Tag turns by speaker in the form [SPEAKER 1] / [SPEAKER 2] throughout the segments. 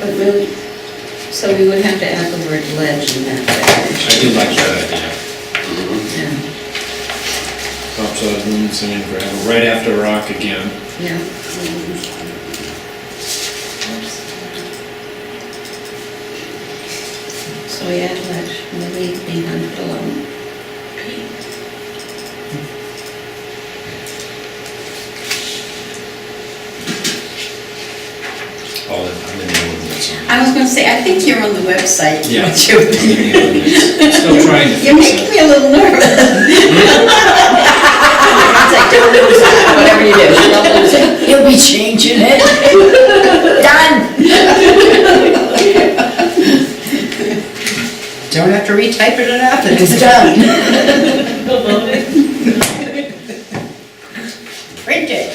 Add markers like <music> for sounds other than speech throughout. [SPEAKER 1] But really, so we would have to add the word ledge in that
[SPEAKER 2] I
[SPEAKER 1] definition.
[SPEAKER 2] do like that idea.
[SPEAKER 1] Yeah,
[SPEAKER 3] Pops out of Lumen Center gravel, right after rock again.
[SPEAKER 1] yeah, so we add ledge, and then leave behind it alone.
[SPEAKER 2] All in, Oh, I'm in the ordinance.
[SPEAKER 1] <laughs>
[SPEAKER 2] on
[SPEAKER 1] I was gonna say, I think you're on the website,
[SPEAKER 2] Yeah.
[SPEAKER 1] aren't you?
[SPEAKER 2] that. Still trying to
[SPEAKER 1] <laughs> You're
[SPEAKER 2] fix
[SPEAKER 1] making
[SPEAKER 2] it.
[SPEAKER 1] me a little nervous. <laughs>
[SPEAKER 4] It's like, don't lose it, whatever you do, don't lose <laughs> it. He'll be changing it. Done.
[SPEAKER 1] Don't have to retype it and after.
[SPEAKER 4] It's done.
[SPEAKER 1] Print it.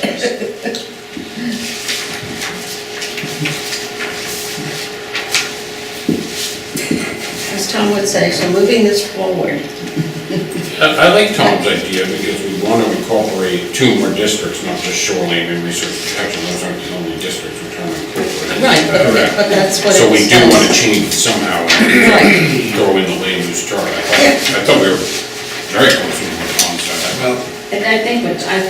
[SPEAKER 1] As Tom would say, so moving this forward.
[SPEAKER 5] I I like Tom's idea because we want to incorporate two more districts, not just shoreline and research protection. Those aren't the only districts we're trying to incorporate.
[SPEAKER 1] Right, but- but that's what
[SPEAKER 5] So we
[SPEAKER 1] it's-
[SPEAKER 5] do want to change it somehow
[SPEAKER 1] Right.
[SPEAKER 5] and throw in the land use chart. I thought- I thought we were very close to what Tom said.
[SPEAKER 3] Well,
[SPEAKER 6] And I think what, I,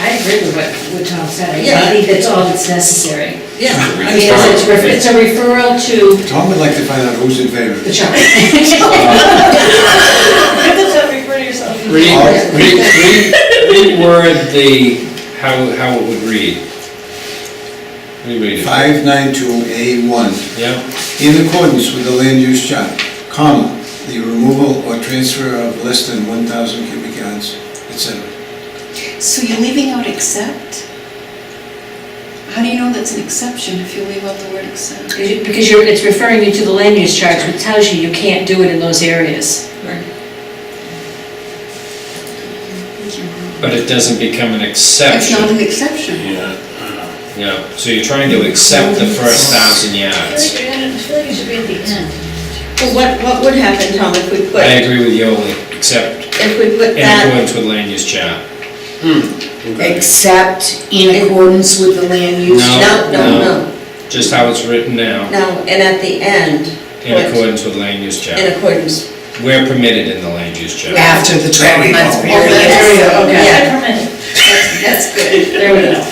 [SPEAKER 6] I agree with what, what Tom said, I
[SPEAKER 1] Yeah.
[SPEAKER 6] think that's all that's necessary.
[SPEAKER 1] Yeah.
[SPEAKER 6] I mean, it's a, ref- it's a referral to
[SPEAKER 7] Tom would like to find out who's in favor.
[SPEAKER 6] the <laughs> chart.
[SPEAKER 2] Re, re, re, reword the, how, how it would read. Reread it.
[SPEAKER 7] 592A1,
[SPEAKER 2] Yeah,
[SPEAKER 7] in accordance with the land use chart, comma, the removal or transfer of less than 1,000 cubic yards, etc.
[SPEAKER 8] So you're leaving out except? How do you know that's an exception if you leave out the word except?
[SPEAKER 6] Because you- Because you're, it's referring you to the land use charts, which tells you you can't do it in those areas.
[SPEAKER 2] but it doesn't become an
[SPEAKER 8] It's not
[SPEAKER 2] exception.
[SPEAKER 8] an exception.
[SPEAKER 5] Yeah.
[SPEAKER 2] Yeah, so you're trying to accept the first thousand yards.
[SPEAKER 6] it should be at the end.
[SPEAKER 1] Well, what, what would happen, Tom, if we put,
[SPEAKER 2] I agree with Yoli, except
[SPEAKER 1] if we put
[SPEAKER 2] in
[SPEAKER 1] that,
[SPEAKER 2] accordance with land use chart.
[SPEAKER 4] Except in accordance with the land use.
[SPEAKER 1] no, no, no,
[SPEAKER 2] Just how it's written now,
[SPEAKER 1] no, and at the end,
[SPEAKER 2] in
[SPEAKER 1] put
[SPEAKER 2] accordance with land use
[SPEAKER 1] in
[SPEAKER 2] chart.
[SPEAKER 1] accordance.
[SPEAKER 2] We're permitted in the land use chart.
[SPEAKER 4] After the twelve months
[SPEAKER 1] Oh,
[SPEAKER 4] period.
[SPEAKER 6] There we go, okay.
[SPEAKER 1] That's, that's good.
[SPEAKER 6] There we go.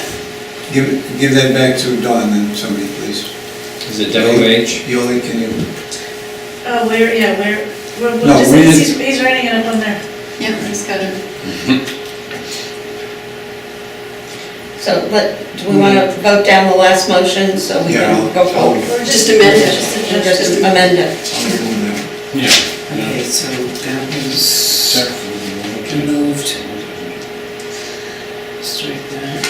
[SPEAKER 7] Give, give that back to Don and somebody, please.
[SPEAKER 2] Is it WH?
[SPEAKER 7] Yoli, can you,
[SPEAKER 9] Oh, where, yeah, where, what,
[SPEAKER 7] No,
[SPEAKER 9] what is
[SPEAKER 7] we
[SPEAKER 9] it?
[SPEAKER 7] didn't-
[SPEAKER 9] He's, he's writing it up on there.
[SPEAKER 8] Yeah, it's got a,
[SPEAKER 1] So let, do we wanna vote down the last motion so we
[SPEAKER 7] yeah,
[SPEAKER 1] can
[SPEAKER 7] I'll,
[SPEAKER 1] go
[SPEAKER 7] I'll,
[SPEAKER 1] forward?
[SPEAKER 4] Just amend
[SPEAKER 1] And just amend it.
[SPEAKER 7] I'll go now.
[SPEAKER 4] Okay, so that was removed. Strike that.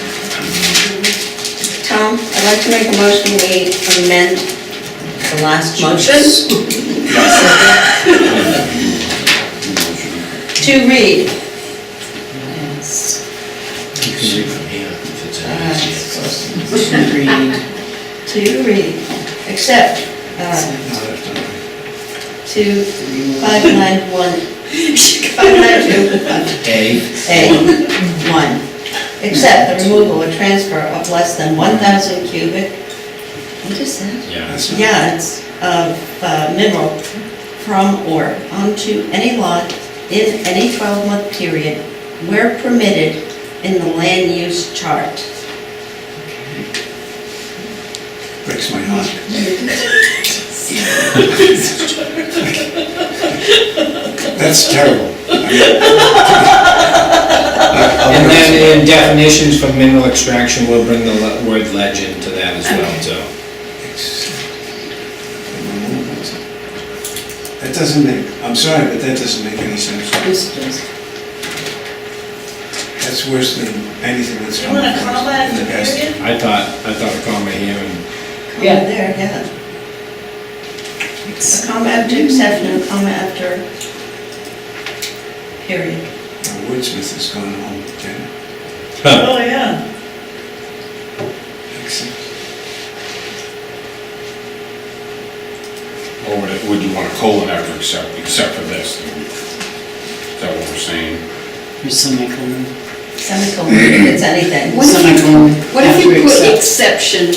[SPEAKER 1] Tom, I'd like to make a motion, we amend the last motion. To read,
[SPEAKER 4] Yes.
[SPEAKER 2] You can read from here if it's
[SPEAKER 1] Uh,
[SPEAKER 2] any easier.
[SPEAKER 4] Agreed.
[SPEAKER 1] to read, except, uh, to five nine <laughs> one, five nine two,
[SPEAKER 2] A.
[SPEAKER 1] A, one. Except the removal or transfer of less than one thousand cubic, what is that?
[SPEAKER 2] Yeah.
[SPEAKER 7] That's not-
[SPEAKER 1] yards of uh, mineral from or onto any lot in any 12-month period where permitted in the land use chart.
[SPEAKER 7] Breaks my heart. That's
[SPEAKER 2] <laughs>
[SPEAKER 7] terrible.
[SPEAKER 2] And then in definitions for mineral extraction, we'll bring the le- word legend to that as well, so.
[SPEAKER 7] That doesn't make, I'm sorry, but that doesn't make any sense. That's worse than anything that's
[SPEAKER 9] You
[SPEAKER 7] come
[SPEAKER 9] want
[SPEAKER 7] up
[SPEAKER 9] to call that
[SPEAKER 7] in the past.
[SPEAKER 9] period?
[SPEAKER 2] I thought, I thought a comma here and,
[SPEAKER 1] Comma
[SPEAKER 6] Yeah.
[SPEAKER 1] there, yeah. A comma after exception, a comma after period.
[SPEAKER 7] Our wordsmith has gone home, Jen.
[SPEAKER 2] huh,
[SPEAKER 9] Oh, yeah.
[SPEAKER 5] Or would it- would you want a colon after except, except for this? Is that what we're saying?
[SPEAKER 4] Here's semicolon.
[SPEAKER 1] Semicolon, if it's anything.
[SPEAKER 8] what if you,
[SPEAKER 4] Semicolon.
[SPEAKER 8] what if
[SPEAKER 4] After
[SPEAKER 8] you put
[SPEAKER 4] accept.
[SPEAKER 8] exception